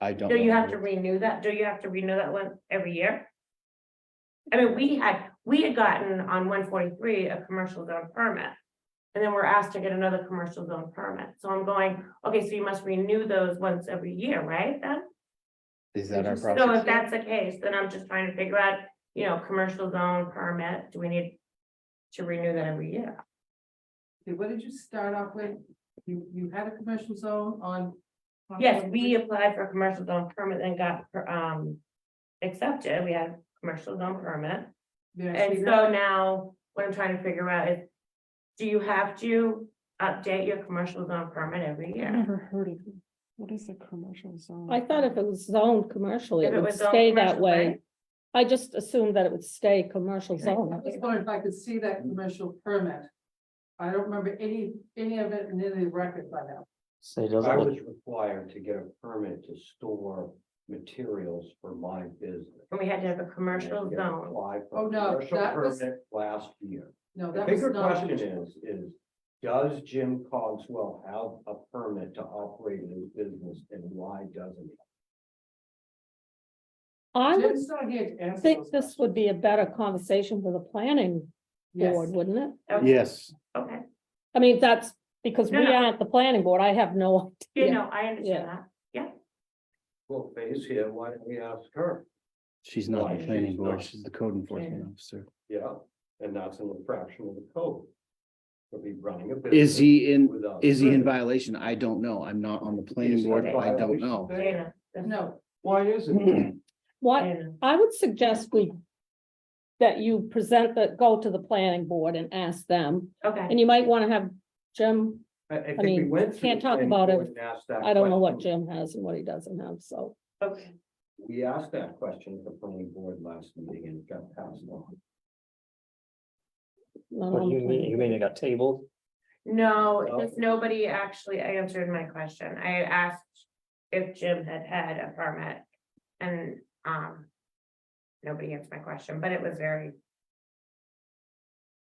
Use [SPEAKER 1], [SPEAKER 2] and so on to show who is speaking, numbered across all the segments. [SPEAKER 1] I don't.
[SPEAKER 2] Do you
[SPEAKER 1] know.
[SPEAKER 2] have to renew that? Do you have to renew that one every year? I mean, we had, we had gotten on one forty-three a commercial zone permit. And then we're asked to get another commercial zone permit. So I'm going, okay, so you must renew those once every year, right? Then?
[SPEAKER 1] Is that our
[SPEAKER 3] Interesting.
[SPEAKER 2] So
[SPEAKER 1] process?
[SPEAKER 2] if that's the case, then I'm just trying to figure out, you know, commercial zone permit, do we need to renew that every year?
[SPEAKER 3] Okay, What did you start off with? You, you had a commercial zone on. on
[SPEAKER 2] Yes,
[SPEAKER 3] Elm
[SPEAKER 2] we
[SPEAKER 3] Street?
[SPEAKER 2] applied for a commercial zone permit and got, um, accepted. We had a commercial zone permit.
[SPEAKER 3] There, so
[SPEAKER 2] And
[SPEAKER 3] you're-
[SPEAKER 2] so now, what I'm trying to figure out is, do you have to update your commercial zone permit every
[SPEAKER 4] I've
[SPEAKER 5] Mm-hmm.
[SPEAKER 2] year?
[SPEAKER 4] never heard of it. What is a commercial zone?
[SPEAKER 5] I thought if it was zoned commercially,
[SPEAKER 2] If
[SPEAKER 5] it
[SPEAKER 2] it
[SPEAKER 5] would
[SPEAKER 2] was zoned
[SPEAKER 5] stay that
[SPEAKER 2] commercial,
[SPEAKER 5] way.
[SPEAKER 2] right?
[SPEAKER 5] I just assumed that it would stay commercial
[SPEAKER 3] I
[SPEAKER 5] zone.
[SPEAKER 3] was wondering if I could see that commercial permit. I don't remember any, any of it in any record by now.
[SPEAKER 6] Say, does
[SPEAKER 7] I
[SPEAKER 6] it
[SPEAKER 7] was required to get a permit to store materials for my business.
[SPEAKER 2] And we had to have a commercial
[SPEAKER 7] And I did
[SPEAKER 2] zone.
[SPEAKER 7] apply for
[SPEAKER 3] Oh,
[SPEAKER 7] a
[SPEAKER 3] no,
[SPEAKER 7] commercial
[SPEAKER 3] that was-
[SPEAKER 7] permit Last year.
[SPEAKER 3] No,
[SPEAKER 7] The
[SPEAKER 3] that was
[SPEAKER 7] bigger
[SPEAKER 3] not.
[SPEAKER 7] question is, is does Jim Cogswell have a permit to operate his business and why doesn't he?
[SPEAKER 5] I would
[SPEAKER 3] Jim's not here to answer those
[SPEAKER 5] think this would be a better conversation for the planning
[SPEAKER 3] Yes.
[SPEAKER 5] board, wouldn't it?
[SPEAKER 2] Okay,
[SPEAKER 1] Yes,
[SPEAKER 2] Okay,
[SPEAKER 5] I mean, that's because we
[SPEAKER 2] No, no.
[SPEAKER 5] aren't the planning board. I have no
[SPEAKER 2] you
[SPEAKER 5] idea.
[SPEAKER 2] know, I
[SPEAKER 5] Yeah.
[SPEAKER 2] understand that.
[SPEAKER 7] Well, Faye's here, why don't we ask her?
[SPEAKER 1] she's not
[SPEAKER 7] Right,
[SPEAKER 1] the planning
[SPEAKER 7] she's
[SPEAKER 1] board,
[SPEAKER 7] not.
[SPEAKER 1] she's the code enforcement officer.
[SPEAKER 7] Yeah, and that's an infraction of the code. To be running a business.
[SPEAKER 1] Is he in,
[SPEAKER 7] without
[SPEAKER 1] is he in
[SPEAKER 7] permit.
[SPEAKER 1] violation? I don't know. I'm not on the
[SPEAKER 7] Is
[SPEAKER 1] planning
[SPEAKER 7] he
[SPEAKER 1] board.
[SPEAKER 7] in
[SPEAKER 1] I don't
[SPEAKER 7] violation?
[SPEAKER 1] know.
[SPEAKER 2] Dana, that's-
[SPEAKER 3] No,
[SPEAKER 7] Why isn't
[SPEAKER 1] Hmm.
[SPEAKER 7] he?
[SPEAKER 5] What,
[SPEAKER 2] Dana.
[SPEAKER 5] I would suggest we, that you present that, go to the planning board and ask them.
[SPEAKER 2] Okay,
[SPEAKER 5] And you might want to have Jim,
[SPEAKER 7] I, I think we
[SPEAKER 5] mean,
[SPEAKER 7] went. through
[SPEAKER 5] can't
[SPEAKER 7] the
[SPEAKER 5] talk
[SPEAKER 7] planning
[SPEAKER 5] about it.
[SPEAKER 7] board and asked that
[SPEAKER 5] I don't know what
[SPEAKER 7] question.
[SPEAKER 5] Jim has and what he doesn't have, so.
[SPEAKER 2] okay,
[SPEAKER 7] We asked that question at the planning board last meeting and it got passed on.
[SPEAKER 5] not on the
[SPEAKER 6] You mean,
[SPEAKER 5] planning
[SPEAKER 6] you mean it got tabled?
[SPEAKER 2] no,
[SPEAKER 7] Well-
[SPEAKER 2] just nobody actually answered my question. I asked if Jim had had a permit. And, um, nobody answered my question, but it was very.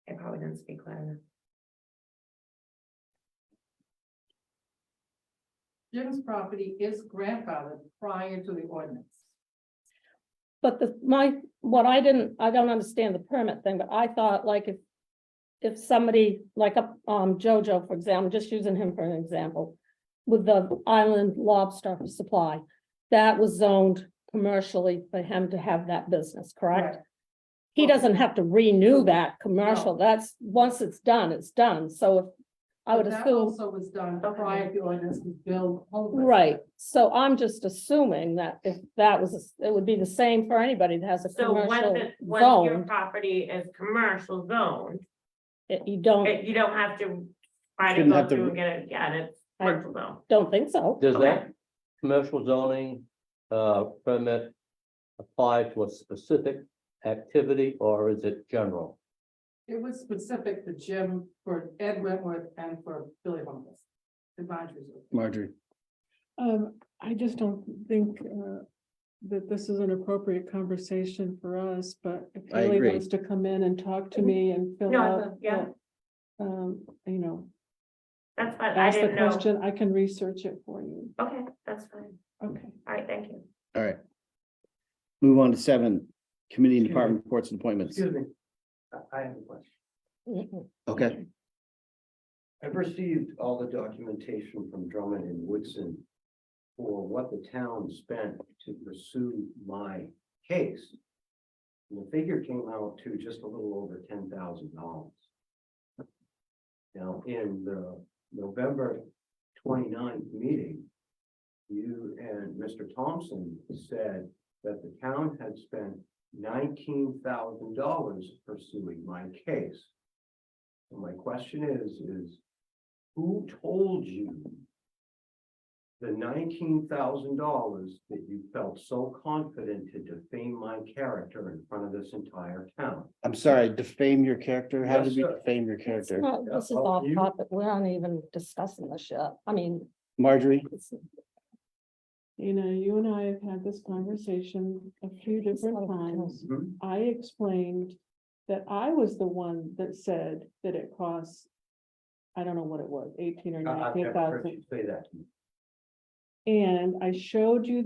[SPEAKER 2] I probably didn't speak loud enough.
[SPEAKER 3] Jim's property is grandfathered prior to the ordinance.
[SPEAKER 5] But the, my, what I didn't, I don't understand the permit thing, but I thought like if. If somebody, like up, um, Jojo, for example, just using him for an example. With the island lobster supply, that was zoned commercially for him to have that business, correct? He doesn't have to renew that commercial, that's, once it's done, it's done, so if. I would
[SPEAKER 3] But that
[SPEAKER 5] assume,
[SPEAKER 3] Also was done
[SPEAKER 2] Okay.
[SPEAKER 3] prior to the ordinance was built.
[SPEAKER 5] right, so I'm just assuming that if that was, it would be the same for anybody that has a
[SPEAKER 2] So once
[SPEAKER 5] commercial
[SPEAKER 2] it, once your
[SPEAKER 5] zone.
[SPEAKER 2] property is commercial zoned,
[SPEAKER 5] It- You don't,
[SPEAKER 2] it- you don't have to. Try to
[SPEAKER 1] Shouldn't
[SPEAKER 2] go
[SPEAKER 1] have to
[SPEAKER 2] through
[SPEAKER 1] re-
[SPEAKER 2] and get it, yeah, it's
[SPEAKER 5] I-
[SPEAKER 2] commercial zone,
[SPEAKER 5] don't think so.
[SPEAKER 6] Does
[SPEAKER 2] Okay.
[SPEAKER 6] that commercial zoning, uh, permit apply to a specific activity or is it general?
[SPEAKER 3] It was specific to Jim for Ed Wentworth and for Billy Homeless. The boundaries.
[SPEAKER 1] Marjorie,
[SPEAKER 4] Um, I just don't think, uh, that this is an appropriate conversation for us, but if
[SPEAKER 1] I
[SPEAKER 4] Haley
[SPEAKER 1] agree.
[SPEAKER 4] wants to come in and talk to me and fill
[SPEAKER 2] Mm-hmm. No, I will,
[SPEAKER 4] out.
[SPEAKER 2] yeah.
[SPEAKER 4] the, Um, you know,
[SPEAKER 2] that's fine, I
[SPEAKER 4] ask the
[SPEAKER 2] didn't know,
[SPEAKER 4] question, I can research it for you.
[SPEAKER 2] okay, that's fine,
[SPEAKER 4] Okay.
[SPEAKER 2] all right, thank you.
[SPEAKER 1] all right. Move on to seven, committee and department reports and appointments.
[SPEAKER 7] Excuse me. I- I have a question.
[SPEAKER 5] Mhm.
[SPEAKER 1] Okay,
[SPEAKER 7] I've received all the documentation from Drummond and Woodson for what the town spent to pursue my case. And the figure came out to just a little over ten thousand dollars. Now, in the November 29th meeting, you and Mr. Thompson said that the town had spent nineteen thousand dollars pursuing my case. So My question is, is who told you the nineteen thousand dollars that you felt so confident to defame my character in front of this entire town?
[SPEAKER 1] I'm sorry, defame your character. How
[SPEAKER 7] Yes,
[SPEAKER 1] did we
[SPEAKER 7] sir.
[SPEAKER 1] defame your
[SPEAKER 5] It's
[SPEAKER 1] character?
[SPEAKER 5] not, this is
[SPEAKER 7] Oh,
[SPEAKER 5] off
[SPEAKER 7] you-
[SPEAKER 5] topic, we aren't even discussing this yet, I mean,
[SPEAKER 1] Marjorie,
[SPEAKER 5] it's
[SPEAKER 4] You know, you and I have had this conversation a few different times.
[SPEAKER 7] Mhm.
[SPEAKER 4] I explained that I was the one that said that it costs, I don't know
[SPEAKER 7] Uh,
[SPEAKER 4] what it was, eighteen or
[SPEAKER 7] I- I've
[SPEAKER 4] nineteen
[SPEAKER 7] never heard
[SPEAKER 4] thousand.
[SPEAKER 7] you say that to me.
[SPEAKER 4] And I showed you